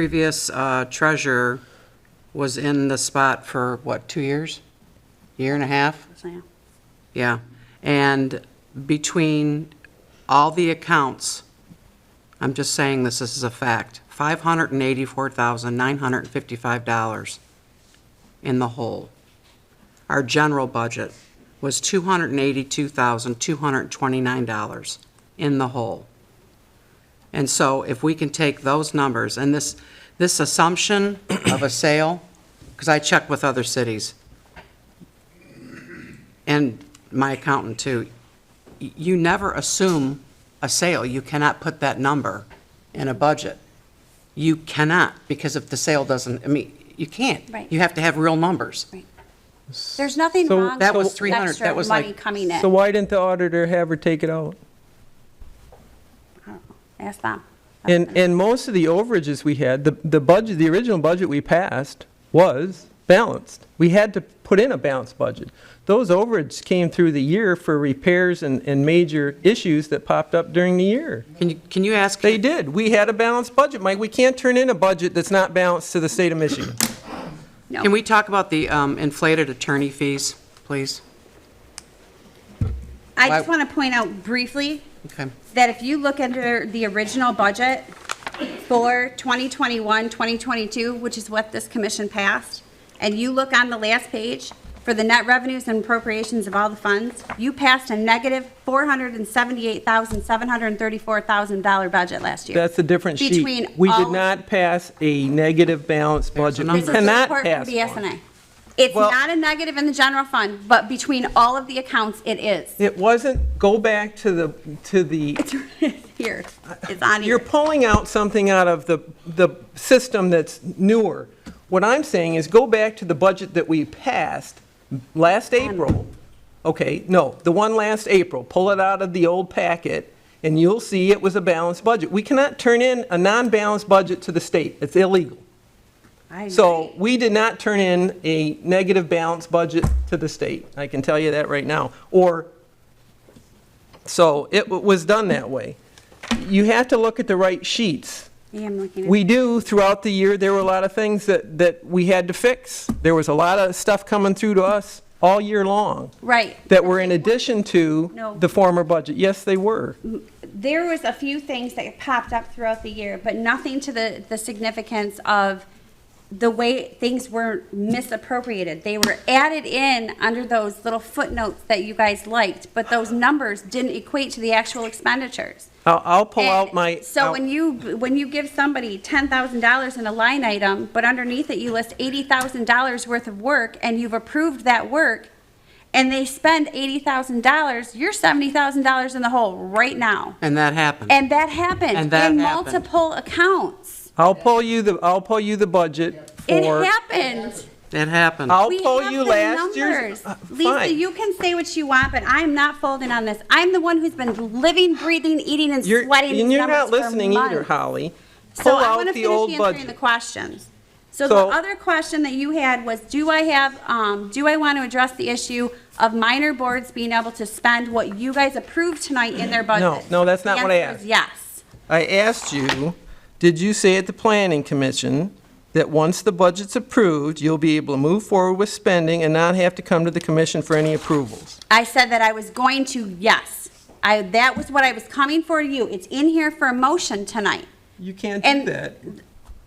previous uh, treasurer was in the spot for, what, two years? Year and a half? So, Yeah. And between all the accounts, I'm just saying this, this is a fact, $584,955 in the hole. Our general budget was $282,229 in the hole. And so if we can take those numbers and this, this assumption of a sale, because I checked with other cities, and my accountant too, y- you never assume a sale. You cannot put that number in a budget. You cannot, because if the sale doesn't, I mean, you can't. Right. You have to have real numbers. right. There's nothing So- wrong That was with 300, extra that was money like- coming in. So why didn't the auditor have her take it out? Ask them. And, and most of the overages we had, the, the budget, the original budget we passed was balanced. We had to put in a balanced budget. Those overages came through the year for repairs and, and major issues that popped up during the year. Can you, can you ask? They did. We had a balanced budget, Mike. We can't turn in a budget that's not balanced to the state of Michigan. Can we talk about the um, inflated attorney fees, please? I just Why- want to point out briefly Okay. that if you look under the original budget for 2021, 2022, which is what this commission passed, and you look on the last page for the net revenues and appropriations of all the funds, you passed a negative $478,734,000 budget last year. That's a different sheet. Between We did all- not pass a negative balanced budget. We numbers. This is cannot report from pass one. BSNA. It's Well- not a negative in the general fund, but between all of the accounts, it is. It wasn't, go back to the, to the Here, it's on You're here. pulling out something out of the, the system that's newer. What I'm saying is go back to the budget that we passed last April. Okay, no, the one last April. Pull it out of the old packet and you'll see it was a balanced budget. We cannot turn in a non-balanced budget to the state. It's illegal. I So we did not turn in a negative balanced budget to the state. I can tell you that right now. Or, so it w- was done that way. You have to look at the right sheets. am looking at. We do, throughout the year, there were a lot of things that, that we had to fix. There was a lot of stuff coming through to us all year long. Right. That were in addition to No. Mm. the former budget. Yes, they were. there was a few things that popped up throughout the year, but nothing to the, the significance of the way things were misappropriated. They were added in under those little footnotes that you guys liked, but those numbers didn't equate to the actual expenditures. I'll, I'll pull out And my. So I'll- when you, when you give somebody ten thousand dollars in a line item, but underneath it you list eighty thousand dollars worth of work, and you've approved that work, and they spend eighty thousand dollars, you're seventy thousand dollars in the hole right now. And that happened. And that happened. And that In happened. multiple accounts. I'll pull you the, I'll pull you the budget It for. happened. It happened. I'll We pull have you the last year's. numbers. uh, Lisa, fine. you can say what you want, but I'm not folding on this. I'm the one who's been living, breathing, eating, and You're- sweating these And you're numbers not for listening either, months. Holly. So Pull I want out to the finish old answering the budget. questions. So the So- other question that you had was, do I have, um, do I want to address the issue of minor boards being able to spend what you guys approved tonight in their budget? no, that's not The what I answer is asked. Yes. I asked you, did you say at the planning commission that once the budget's approved, you'll be able to move forward with spending and not have to come to the commission for any approvals? I said that I was going to, yes. I, that was what I was coming for you. It's in here for a motion tonight. You can't do And- that.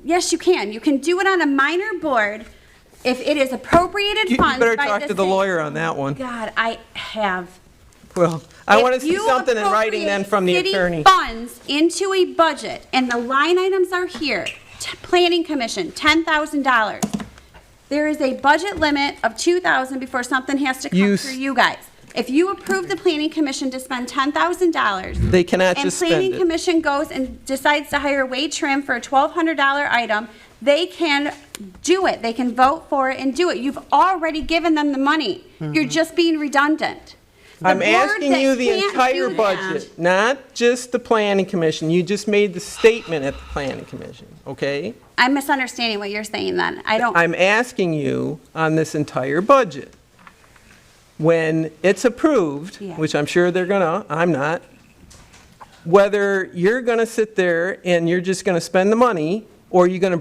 Yes, you can. You can do it on a minor board if it is appropriated You funds better by talk to the state. lawyer on that one. God, I have. Well, I If want to see you something in writing then from the appropriate attorney. City funds into a budget, and the line items are here, T- planning commission, ten thousand dollars. There is a budget limit of two thousand before something has to come You s- through you guys. If you approve the planning commission to spend ten thousand dollars. They cannot just spend And planning it. commission goes and decides to hire Wade Trim for a twelve hundred dollar item, they can do it. They can vote for it and do it. You've already given them the money. You're Mm-hmm. just being redundant. The I'm board asking that you the can't entire do that- budget, not just the planning commission. You just made the statement at the planning commission, okay? I'm misunderstanding what you're saying then. I don't, I'm asking you on this entire budget. When it's approved, Yeah. which I'm sure they're gonna, I'm not, whether you're gonna sit there and you're just gonna spend the money, or you're gonna